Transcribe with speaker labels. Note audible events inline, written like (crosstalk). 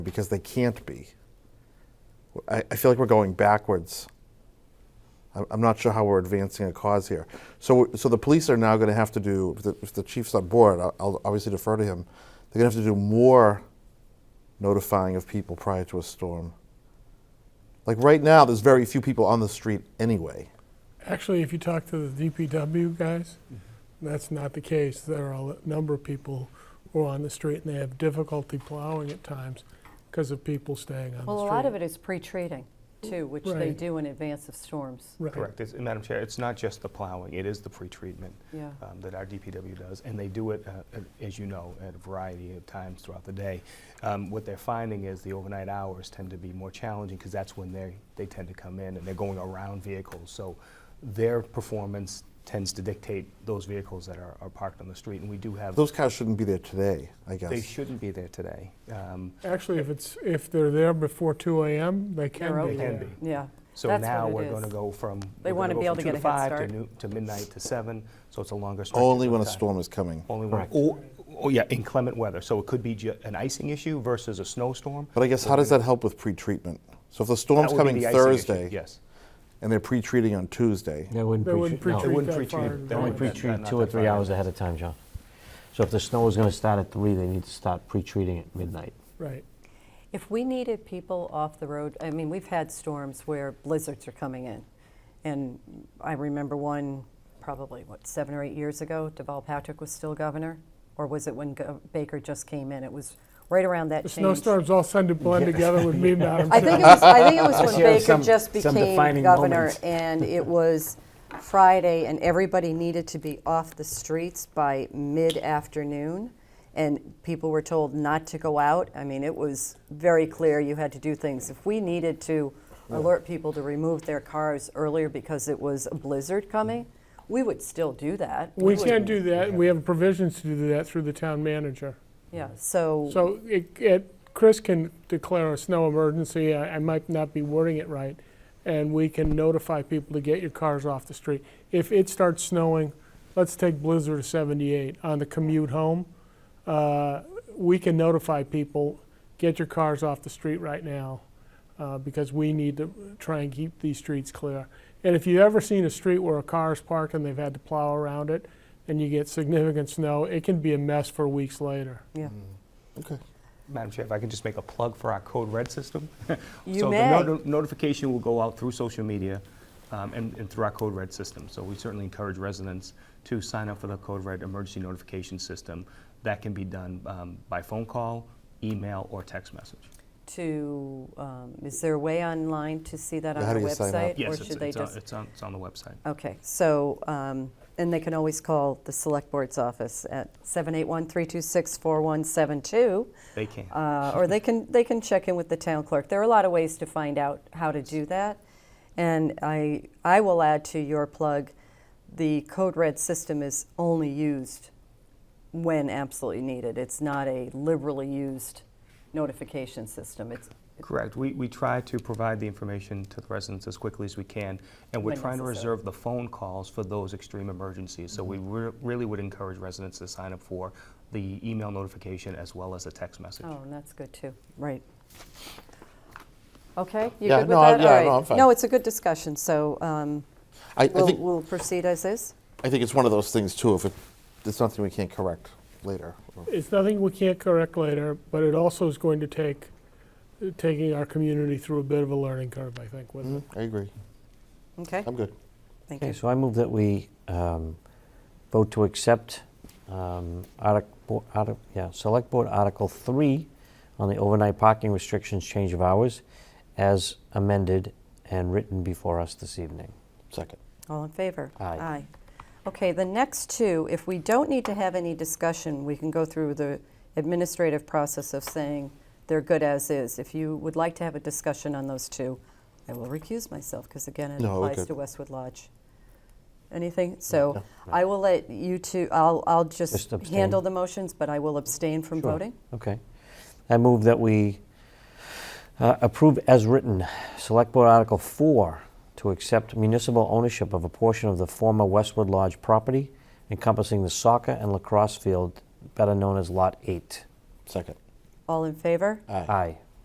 Speaker 1: because they can't be. I, I feel like we're going backwards. I'm, I'm not sure how we're advancing a cause here. So, so the police are now going to have to do, if the, if the chief's on board, I'll, I'll obviously defer to him, they're going to have to do more notifying of people prior to a storm. Like right now, there's very few people on the street anyway.
Speaker 2: Actually, if you talk to the DPW guys,
Speaker 3: Mm-hmm.
Speaker 2: that's not the case. There are a number of people who are on the street and they have difficulty plowing at times because of people staying on the street.
Speaker 4: Well, a lot of it is pre-treating too, which they
Speaker 2: Right.
Speaker 4: do in advance of storms.
Speaker 2: Right.
Speaker 3: Correct. It's- Madam Chair, it's not just the plowing, it is the pretreatment
Speaker 4: Yeah.
Speaker 3: um, that our DPW does, and they do it, uh, a- as you know, at a variety of times throughout the day. Um, What they're finding is the overnight hours tend to be more challenging, because that's when they, they tend to come in, and they're going around vehicles. So their performance tends to dictate those vehicles that are are parked on the street, and we do have,
Speaker 1: Those cars shouldn't be there today, I guess.
Speaker 3: they shouldn't be there today. Um,
Speaker 2: Actually, if it's, if they're there before two AM, they can
Speaker 4: They're
Speaker 2: be
Speaker 4: open.
Speaker 3: They
Speaker 2: there.
Speaker 3: can be.
Speaker 4: Yeah.
Speaker 3: So
Speaker 4: That's
Speaker 3: now
Speaker 4: what it
Speaker 3: we're going to
Speaker 4: is.
Speaker 3: go from.
Speaker 4: They
Speaker 3: we're gonna
Speaker 4: wanna
Speaker 3: go
Speaker 4: be able
Speaker 3: from
Speaker 4: to get a head
Speaker 3: two to
Speaker 4: start.
Speaker 3: five to noo- to midnight to seven, so it's a longer stretch.
Speaker 1: Only when a
Speaker 3: of time.
Speaker 1: storm is coming.
Speaker 3: Only when, or, or, yeah, inclement weather. So it could be ju- an icing issue versus a snowstorm.
Speaker 1: But I guess how does that help with pre-treatment? So if the
Speaker 3: That
Speaker 1: storm's
Speaker 3: would be
Speaker 1: coming
Speaker 3: the icing issue,
Speaker 1: Thursday
Speaker 3: Yes.
Speaker 1: and they're pre-treating on Tuesday,
Speaker 5: They wouldn't
Speaker 2: They wouldn't
Speaker 5: pre-treat, no.
Speaker 3: They
Speaker 2: Treat
Speaker 3: wouldn't
Speaker 2: that
Speaker 3: pre-treat.
Speaker 2: fire
Speaker 3: it-
Speaker 2: and
Speaker 3: they
Speaker 5: They only
Speaker 2: Only
Speaker 3: wouldn't
Speaker 2: that-
Speaker 3: pre-treat
Speaker 5: pre-treat
Speaker 3: not
Speaker 5: two
Speaker 3: that
Speaker 5: or three
Speaker 3: far.
Speaker 5: hours ahead of time, John. So if the snow is gonna start at three, they need to start pre-treating at midnight.
Speaker 2: Right.
Speaker 4: If we needed people off the road, I mean, we've had storms where blizzards are coming in. And I remember one probably, what, seven or eight years ago, Deval Patrick was still governor? Or was it when Gov- Baker just came in? It was right around that
Speaker 2: The
Speaker 4: change.
Speaker 2: snowstorms all tend to blend together with me, Madam
Speaker 4: (laughs) I
Speaker 2: Chair.
Speaker 4: think it was, I think
Speaker 1: (laughs)
Speaker 4: it was when
Speaker 5: Sure,
Speaker 4: Baker
Speaker 5: some-
Speaker 4: just
Speaker 5: some
Speaker 4: became
Speaker 5: defining
Speaker 4: governor,
Speaker 5: moments.
Speaker 4: and it was Friday, and everybody needed to be off the streets by mid-afternoon, and people were told not to go out. I mean, it was very clear you had to do things. If we needed to alert people to remove their cars earlier because it was a blizzard coming, we would still do that.
Speaker 2: We
Speaker 4: would-
Speaker 2: can do that. We have provisions to do that through the town manager.
Speaker 4: Yeah, so,
Speaker 2: So it, it, Chris can declare a snow emergency, I, I might not be wording it right, and we can notify people to get your cars off the street. If it starts snowing, let's take Blizzard to 78 on the commute home, uh, we can notify people, get your cars off the street right now, uh, because we need to try and keep these streets clear. And if you've ever seen a street where a car is parked and they've had to plow around it, and you get significant snow, it can be a mess for weeks later.
Speaker 4: yeah.
Speaker 3: Madam Chair, if I can just make a plug for our Code Red system.
Speaker 4: You
Speaker 3: (laughs) So
Speaker 4: may.
Speaker 3: the noti- notification will go out through social media um, and and through our Code Red system. So we certainly encourage residents to sign up for the Code Red emergency notification system. That can be done um, by phone call, email, or text message.
Speaker 4: to, um, is there a way online to see that on
Speaker 1: Yeah, how
Speaker 4: our
Speaker 1: do you sign up?
Speaker 4: website?
Speaker 3: Yes,
Speaker 4: Or
Speaker 3: it's-
Speaker 4: should they
Speaker 3: it's uh, on-
Speaker 4: just?
Speaker 3: it's on it's on the website.
Speaker 4: Okay, so, um, and they can always call the Select Board's office at 781-326-4172,
Speaker 3: They can.
Speaker 4: uh, or they can, they can check in with the town clerk. There are a lot of ways to find out how to do that. And I, I will add to your plug, the Code Red system is only used when absolutely needed. It's not a liberally used notification system. It's,
Speaker 3: Correct. We, we try to provide the information to the residents as quickly as we can, and we're
Speaker 4: When
Speaker 3: trying to
Speaker 4: necessary. Mm-hmm.
Speaker 3: reserve the phone calls for those extreme emergencies. So we re- really would encourage residents to sign up for the email notification as well as a text message.
Speaker 4: Oh, and that's good too, right. Okay, you
Speaker 1: Yeah,
Speaker 4: good with
Speaker 1: no, I-
Speaker 4: that?
Speaker 1: yeah,
Speaker 4: All right.
Speaker 1: no, I'm fine.
Speaker 4: No, it's a good discussion, so um,
Speaker 1: I, I
Speaker 4: we'll,
Speaker 1: think
Speaker 4: we'll proceed as is.
Speaker 1: I think it's one of those things too. If it, it's something we can't correct later, or-
Speaker 2: It's nothing we can't correct later, but it also is going to take, taking our community through a bit of a learning curve, I think, with it.
Speaker 1: I agree.
Speaker 4: Okay,
Speaker 1: I'm good.
Speaker 4: thank
Speaker 5: Okay,
Speaker 4: you.
Speaker 5: so I move that we um, vote to accept um, artic- bo- artic- yeah, Select Board Article 3 on the overnight parking restrictions change of hours as amended and written before us this evening.
Speaker 1: Second.
Speaker 4: All in favor?
Speaker 5: Aye.
Speaker 4: Okay, the next two, if we don't need to have any discussion, we can go through the administrative process of saying they're good as is. If you would like to have a discussion on those two, I will recuse myself, because again, it
Speaker 1: No, we're
Speaker 4: applies
Speaker 1: good.
Speaker 4: to Westwood Lodge. Anything? So I will let you two, I'll, I'll just
Speaker 5: Just abstain.
Speaker 4: handle the motions, but I will abstain from
Speaker 5: Sure.
Speaker 4: voting.
Speaker 5: Okay. I move that we uh, approve as written, Select Board Article 4, to accept municipal ownership of a portion of the former Westwood Lodge property encompassing the soccer and lacrosse field, better known as Lot 8.
Speaker 1: Second.
Speaker 4: All in favor?
Speaker 1: Aye.
Speaker 5: Aye.